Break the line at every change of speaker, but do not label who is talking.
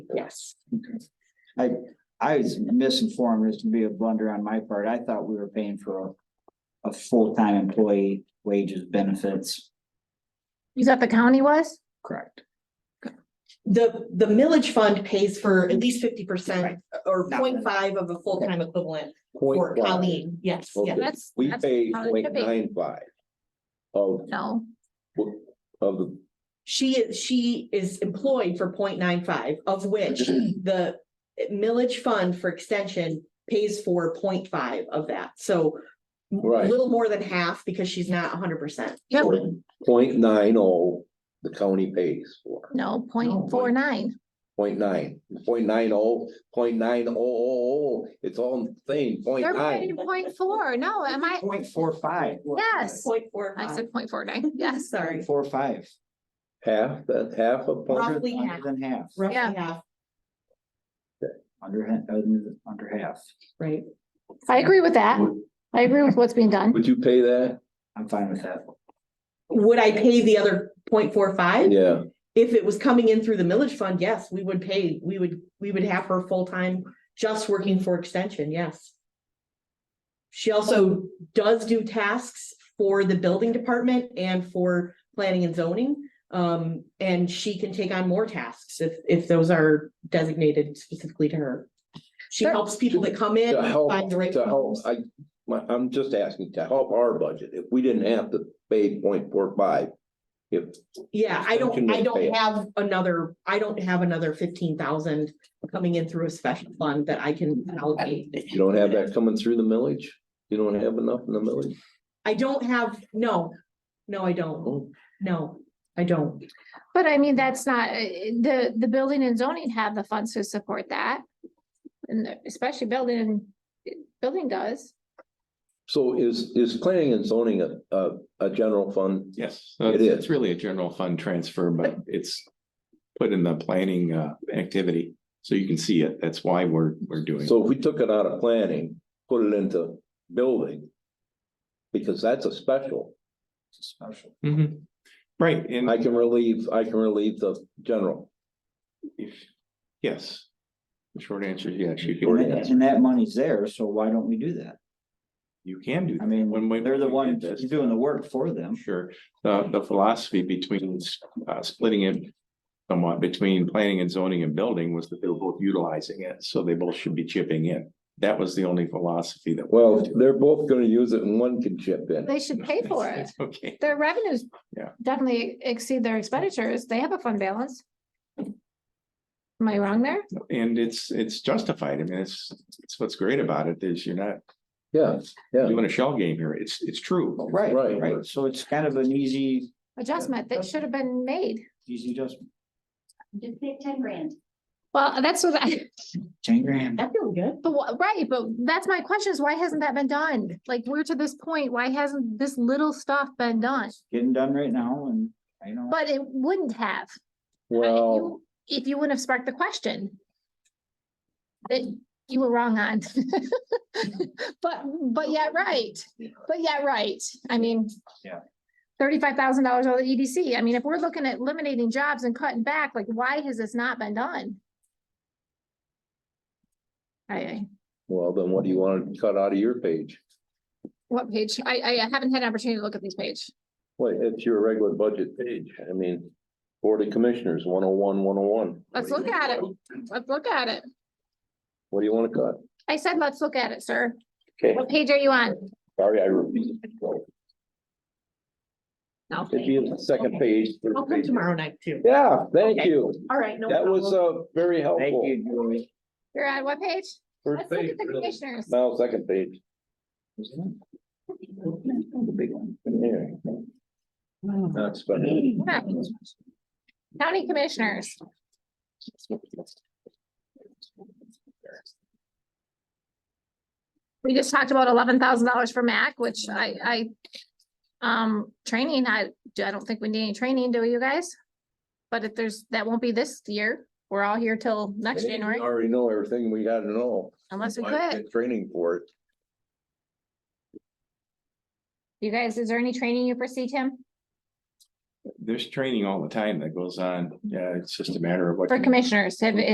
Yes.
I was misinformed, this would be a blunder on my part, I thought we were paying for a. A full-time employee wages benefits,
You thought the county was?
correct?
The, the millage fund pays for at least fifty percent or
Not
0.5 of a full-time equivalent for
Point five.
Colleen. Yes,
Okay.
yes.
That's-
We
that's
pay
how it should
point
be.
nine five. Of,
No,
of the,
She is, she is employed for 0.95, of which the millage fund for extension pays for 0.5 of that. So a
Right.
little more than half because she's not hundred percent.
Yep.
point nine oh, the county pays for,
no,
No.
point four nine.
point nine, point nine oh, point nine oh, oh, oh, it's all the same, point
They're
nine.
paying point four. No, am I?
Point four five.
Yes.
Point four
I
five,
said point four nine. Yes.
sorry,
Four five,
Half, that half a point,
roughly half,
under than half,
roughly
Yeah.
half,
under, ha- under, under half,
right?
I agree with that.
Would-
I agree with what's being done.
would you pay that?
I'm fine with that.
Would I pay the other 0.45?
Yeah,
If it was coming in through the millage fund, yes, we would pay, we would, we would have her full-time just working for extension, yes. She also does do tasks for the building department and for planning and zoning. Um, and she can take on more tasks if, if those are designated specifically to her. She
Sure.
helps people that come in,
to help,
find the right.
to help,
homes.
I, my, I'm just asking to help our budget, if we didn't have to pay point four five. If,
Yeah, I
Extension
don't, I
would pay
don't
it.
have another, I don't have another fifteen thousand coming in through a special fund that I can allocate.
you don't have that coming through the millage, you don't have enough in the millage,
I don't have, no, no, I don't,
Oh.
no, I don't.
But I mean, that's not, uh, the, the building and zoning have the funds to support that. And especially building, building does.
So is, is planning and zoning a, a, a general fund?
Yes,
It
so it's,
is.
it's really a general fund transfer, but it's put in the planning uh activity, so you can see it. That's why we're, we're doing. it.
So if we took it out of planning, put it into building. Because that's a special,
It's a Special.
Mhm. Right,
I
and
can relieve, I can relieve the general.
if, yes. The short answer is yes, you
Short
can,
answer.
And that money's there, so why don't we do that?
you can do.
I
that. When we-
mean, they're the
when we
ones
did this,
doing the work for them.
Sure, the, the philosophy between uh splitting it somewhat between planning and zoning and building was that they were both utilizing it, so they both should be chipping in. That was the only philosophy that.
Well, they're both gonna use it and one can chip in.
They should pay for it.
It's Okay.
Their revenues
Yeah.
definitely exceed their expenditures. They have a fund balance. Am I wrong there?
And it's, it's justified. I mean, it's, it's what's great about it is you're not
Yeah, yeah.
doing a shell game here. It's, it's true.
Right,
Right.
right, so it's kind of an easy,
Adjustment that should have been made.
easy adjustment,
Just pay ten grand.
Well, that's what I,
ten grand.
That feels good.
but wh- right, but that's my question is why hasn't that been done? Like, we're to this point, why hasn't this little stuff been done?
getting done right now and I know.
But it wouldn't have. I- if
Well,
you- If you wouldn't have sparked the question. That you were wrong on. But, but yeah, right, but yeah, right, I mean.
Yeah.
Thirty-five thousand dollars on the EDC, I mean, if we're looking at eliminating jobs and cutting back, like, why has this not been done? I- I,
well, then what do you want to cut out of your page?
what page, I, I haven't had an opportunity to look at this page,
Well, it's your regular budget page, I mean, Board of Commissioners, one oh one, one oh one.
let's look at it, let's look at it,
What do you want to cut?
I said, let's look at it, sir,
Okay,
what page are you on?
sorry, I repeated.
No.
It'd be the second page. third
I'll come
page.
tomorrow night too.
Yeah, thank
Okay.
you.
All right. no
That was,
problem.
uh, very
Thank
helpful.
you, Joey.
You're on what page?
First
Let's look
page,
at the
really.
commissioners.
Now, second page.
Isn't it? The big one.
Yeah. Not spending.
Right. County commissioners. We just talked about eleven thousand dollars for MAC, which I, I, um, training, I, I don't think we need any training, do you guys? But if there's, that won't be this year. We're all here till next
Hey,
January,
we Already know everything we gotta know.
unless we
Why get
quit.
Training for it.
You guys, is there any training you foresee, Tim,
There's training all the time that goes on. Yeah, it's just a matter of what.
for commissioners? Have,